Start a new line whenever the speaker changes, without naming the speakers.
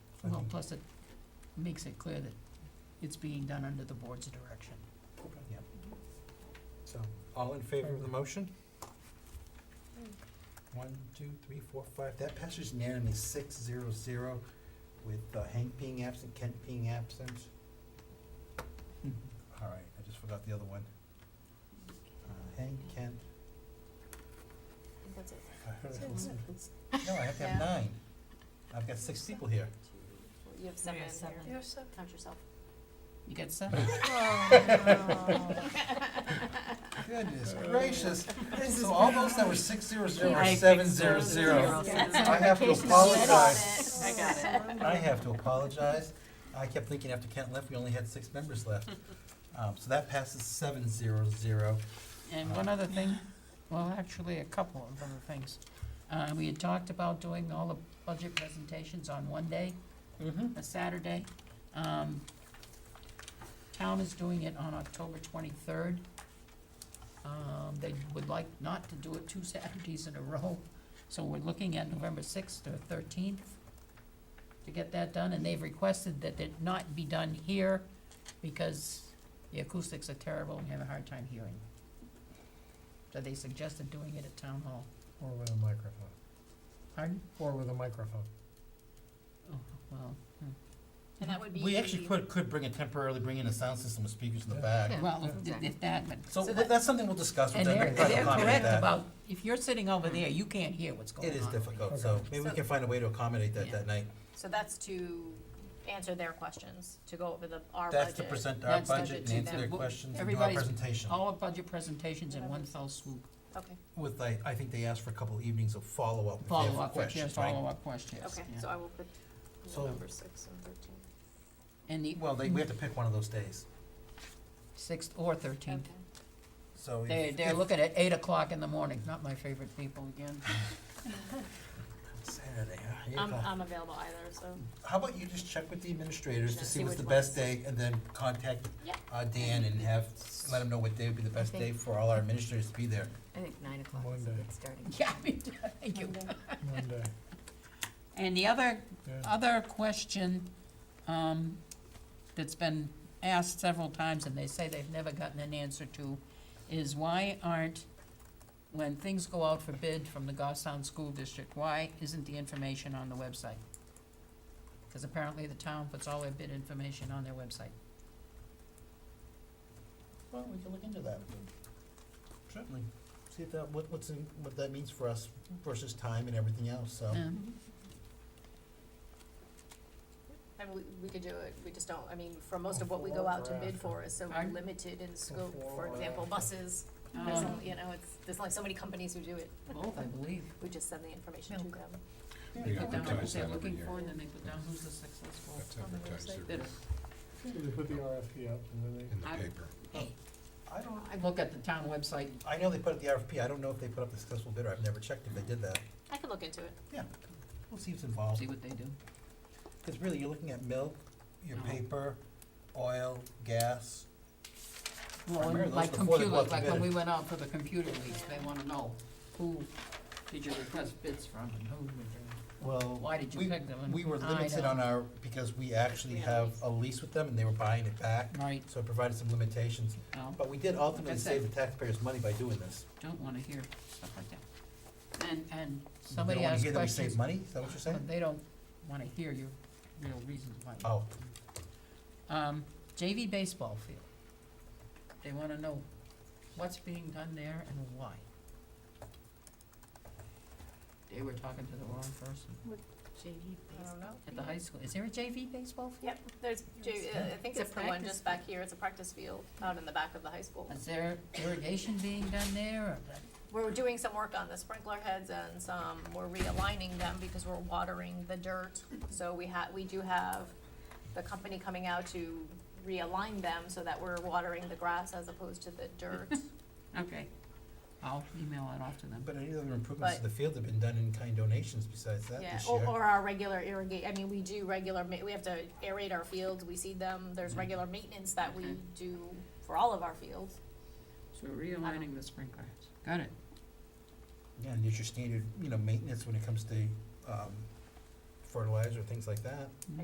plus it makes it clear that it's being done under the board's direction. Yep.
So, all in favor of the motion? One, two, three, four, five. That passes unanimously, six, zero, zero, with uh, Hank being absent, Kent being absent. All right, I just forgot the other one. Uh, Hank, Kent.
That's it.
No, I have to have
Yeah.
nine. I've got six people here.
You have seven in here.
You're so.
Count yourself.
You get seven?
Oh.
Goodness gracious. So all those that were six, zero, zero, are seven, zero, zero. I
Yeah.
have to
Vacation already.
apologize.
I got
it.
I have to apologize. I kept thinking after Kent left, we only had six members left. Um, so that passes seven zero zero.
And one other thing, well, actually, a couple of other things. Uh, we had talked about doing all the budget presentations on one day,
Mm-hmm.
a Saturday. Um, town is doing it on October twenty-third. Um, they would like not to do it two Saturdays in a row, so we're looking at November sixth or thirteenth to get that done, and they've requested that it not be done here because the acoustics are terrible and we have a hard time hearing. So they suggested doing it at town hall.
Or with a microphone.
Pardon?
Or with a microphone.
Oh, well,
And that would be.
We actually could, could bring it temporarily, bring in a sound system with speakers in the back.
Yeah.
well, if- if that, but
So but that's something we'll discuss
And
with them.
they're,
We can
they're
accommodate
correct
that.
about, if you're sitting over there, you can't hear what's going on.
It is difficult, so
Okay.
maybe we
So-
can find a way to accommodate that
Yeah.
that night.
So that's to answer their questions, to go over the, our budget.
That's to present our
That's the
budget and
budget
answer
that
their
w-
questions and do our
everybody's-
presentation.
All our budget presentations in one fell swoop,
Okay,
With, I, I think they asked for a couple evenings of follow-up if they have
follow-up, if you have
questions, right?
follow-up questions.
okay,
yeah.
so I will put
So-
November sixth and thirteenth.
And the
Well, they, we have to pick one of those days,
sixth or thirteenth,
so. if-
they, they're
if-
looking at eight o'clock in the morning, not my favorite people again.
Saturday, uh, huh? Eight
I'm,
o'clock.
I'm available either, so.
How about you just check with the administrators to
Yeah,
see
see
what's the
which
best
ones.
day, and then contact
Yeah.
uh, Dan and have, let him know what day would be the best
Okay.
day for all our administrators to be there.
I think nine o'clock is a
Monday.
good starting.
Yeah, I mean, thank you.
Monday,
And the other
yeah.
Other question, um, that's been asked several times, and they say they've never gotten an answer to, is why aren't, when things go out for bid from the Goffstown School District, why isn't the information on the website? Because apparently the town puts all their bid information on their website.
Well, we can look into that. Certainly. See if that, what, what's, in- what that means for us versus time and everything else, so.
Yeah.
Um, And we, we could do it, we just don't, I mean, for most of what we go out to bid for is so
Pardon?
limited in scope, for
Before or
example,
after.
buses, there's,
Um,
only- you know, it's, there's only so many companies who do it,
Both, I believe.
we just send the information to them.
They put down what
advertise
they're
that every
looking
year.
for, and then they put down who's the successful
That's
on the
advertised
website.
every-
bidder.
They put the RFP out and then
in the
I-
paper.
I don't,
I look at the town website,
I know they put up the RFP, I don't know if they put up the successful bidder, I've never checked if they did that.
I could look into it.
Yeah, we'll see what's involved.
see what they do.
Because really, you're looking at milk, your
No.
paper, oil, gas.
Well,
Remember
and
those
like
before they
computer,
go out to
like when
bid.
we went out for the computer lease, they wanna know who did you request bids from and who would you,
Well,
why did you
we-
pick them? and
We were
I
limited
don't-
on our, because we actually
We had a
have
lease.
a lease with them and they were buying it back,
Right,
so it provided some limitations.
no,
But we did ultimately
Like I
save the
said.
taxpayers money by doing this.
don't wanna hear stuff like that. And, and
You don't
somebody
wanna
asked
hear that we save
questions,
money, is that what you're
but
saying?
they don't wanna hear your real reasons why.
Oh,
Um, JV baseball field, they wanna know what's being done there and why. They were talking to the wrong person
JV
I don't know.
at the high school, is there a JV baseball field?
Yep, there's, J- I think
It's a
it's the one
practice
just back here, it's a practice field out in the back of the high school.
Is there irrigation being done there?
We're doing some work on the sprinkler heads and some, we're realigning them because we're watering the dirt. So we ha, we do have the company coming out to realign them so that we're watering the grass as opposed to the dirt.
Okay. I'll email it off to them.
but any other improvements to
But-
the field have been done in kind donations besides that
Yeah,
this
or,
year?
or our regular irrigate, I mean, we do regular ma, we have to aerate our fields, we seed them, there's
Mm-hmm.
Mhm.
regular maintenance that we
Okay.
do for all of our fields.
So realigning the sprinklers. Got it.
Yeah, and it's your standard, you know, maintenance when it comes to, um, fertilizer, things like that.